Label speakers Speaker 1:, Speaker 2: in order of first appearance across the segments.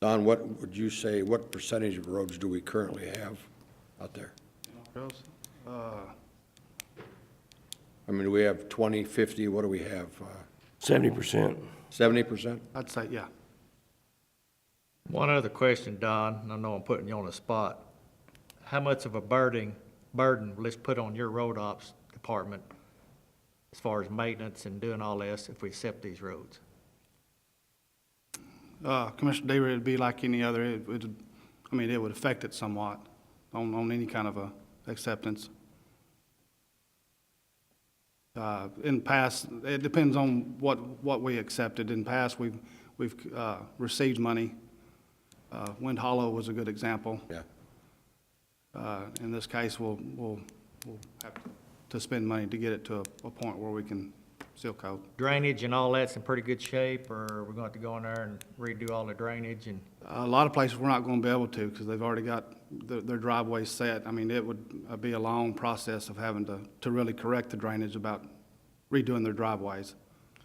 Speaker 1: Don, what would you say, what percentage of roads do we currently have out there?
Speaker 2: Girls, uh,
Speaker 1: I mean, do we have 20, 50, what do we have? uh?
Speaker 3: Seventy percent.
Speaker 1: Seventy percent?
Speaker 2: I'd say, yeah.
Speaker 4: One other question, Don, and I know I'm putting you on the spot. How much of a burden, burden, let's put on your road ops department as far as maintenance and doing all this if we accept these roads?
Speaker 2: Uh, Commissioner Deaver, it'd be like any other, it would, I mean, it would affect it somewhat on, on any kind of a acceptance. Uh, In past, it depends on what, what we accepted. In past, we've, we've uh, received money. Uh, Wind Hollow was a good example.
Speaker 1: Yeah.
Speaker 2: Uh, In this case, we'll, we'll, we'll have to spend money to get it to a, a point where we can seal coat.
Speaker 4: Drainage and all that's in pretty good shape, or we're going to have to go in there and redo all the drainage and,
Speaker 2: A lot of places we're not going to be able to because they've already got their their driveways set. I mean, it would uh, be a long process of having to, to really correct the drainage about redoing their driveways.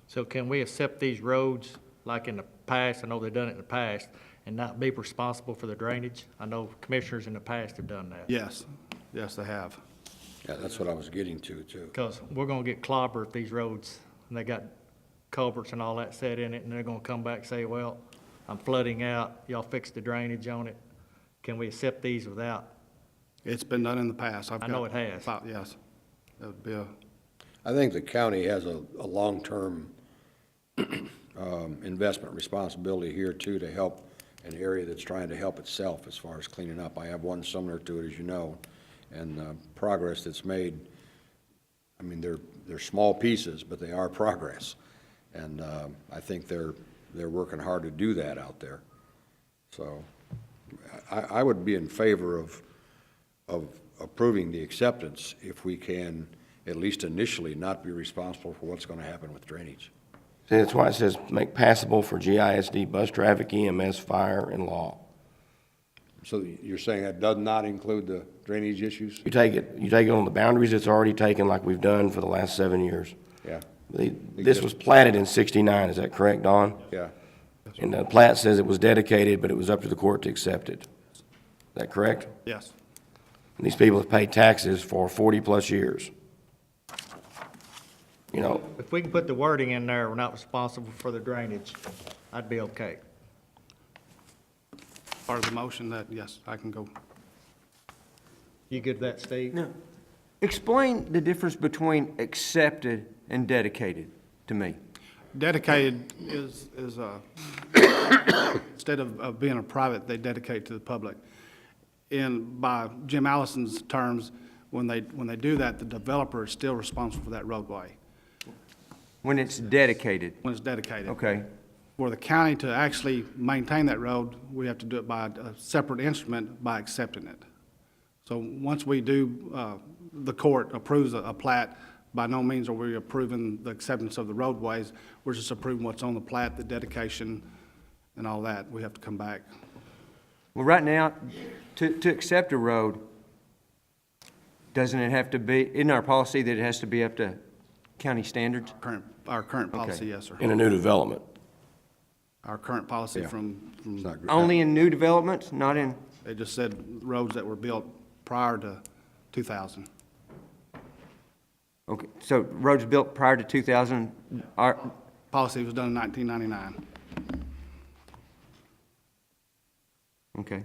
Speaker 4: so can we accept these roads like in the past? I know they've done it in the past and not be responsible for the drainage? I know commissioners in the past have done that.
Speaker 2: Yes, yes, they have.
Speaker 1: Yeah, that's what I was getting to, too.
Speaker 4: Because we're gonna get clobbered if these roads, and they got culverts and all that set in it, and they're gonna come back and say, well, I'm flooding out, y'all fix the drainage on it. Can we accept these without?
Speaker 2: It's been done in the past. I've
Speaker 4: I know
Speaker 2: got-
Speaker 4: it has.
Speaker 2: fi- Yes. That would be a,
Speaker 1: I think the county has a, a long-term um, investment responsibility here, too, to help an area that's trying to help itself as far as cleaning up. I have one similar to it, as you know, and the progress that's made, I mean, they're, they're small pieces, but they are progress. And um, I think they're, they're working hard to do that out there. So I, I would be in favor of, of approving the acceptance if we can, at least initially, not be responsible for what's going to happen with drainage.
Speaker 3: See, that's why it says make passable for GISD, bus traffic, EMS, fire, and law.
Speaker 1: So you're saying that does not include the drainage issues?
Speaker 3: You take it, you take it on the boundaries it's already taken like we've done for the last seven years.
Speaker 1: Yeah,
Speaker 3: The- This was platted in sixty-nine, is that correct, Don?
Speaker 1: yeah.
Speaker 3: And the plat says it was dedicated, but it was up to the court to accept it. Is that correct?
Speaker 2: yes.
Speaker 3: And these people have paid taxes for forty-plus years. You know,
Speaker 4: If we can put the wording in there, we're not responsible for the drainage, I'd be okay.
Speaker 2: Part of the motion that, yes, I can go.
Speaker 4: You good with that, Steve?
Speaker 5: Now, explain the difference between accepted and dedicated to me.
Speaker 2: Dedicated is, is a, instead of, of being a private, they dedicate to the public. And by Jim Allison's terms, when they, when they do that, the developer is still responsible for that roadway
Speaker 5: When it's dedicated,
Speaker 2: when it's dedicated.
Speaker 5: okay?
Speaker 2: For the county to actually maintain that road, we have to do it by a separate instrument by accepting it. So once we do, uh, the court approves a- a plat, by no means are we approving the acceptance of the roadways. We're just approving what's on the plat, the dedication and all that. We have to come back.
Speaker 5: Well, right now, to, to accept a road, doesn't it have to be, in our policy that it has to be up to county standards?
Speaker 2: Current, our current
Speaker 5: Okay.
Speaker 2: policy, yes, sir.
Speaker 3: in a new development.
Speaker 2: Our current policy
Speaker 1: Yeah.
Speaker 2: from,
Speaker 1: It's
Speaker 2: from,
Speaker 1: not gr-
Speaker 5: Only in new developments, not in,
Speaker 2: they just said roads that were built prior to 2000.
Speaker 5: okay, so roads built prior to 2000 are,
Speaker 2: Policy was done in 1999.
Speaker 5: okay.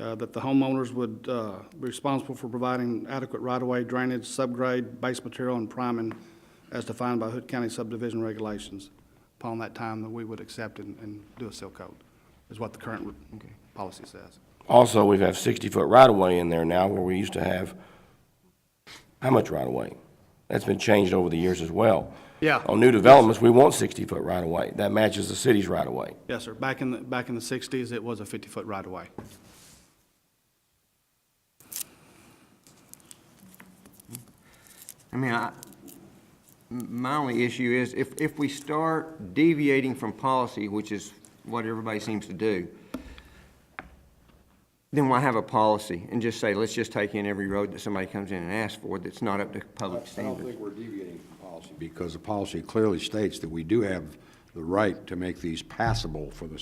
Speaker 2: uh, that the homeowners would uh, be responsible for providing adequate right-of-way drainage, subgrade, base material, and priming as defined by Hood County subdivision regulations. Upon that time, that we would accept and- and do a seal coat, is what the current policy says.
Speaker 3: Also, we have sixty-foot right-of-way in there now where we used to have, how much right-of-way? That's been changed over the years as well.
Speaker 2: Yeah.
Speaker 3: On new developments, we want sixty-foot right-of-way. That matches the city's right-of-way.
Speaker 2: Yes, sir. Back in, the back in the 60s, it was a 50-foot right-of-way.
Speaker 5: I mean, I, m- my only issue is if, if we start deviating from policy, which is what everybody seems to do, then why have a policy and just say, let's just take in every road that somebody comes in and asks for that's not up to public
Speaker 1: I don't
Speaker 5: standards?
Speaker 1: think we're deviating from policy because the policy clearly states that we do have the right to make these passable for the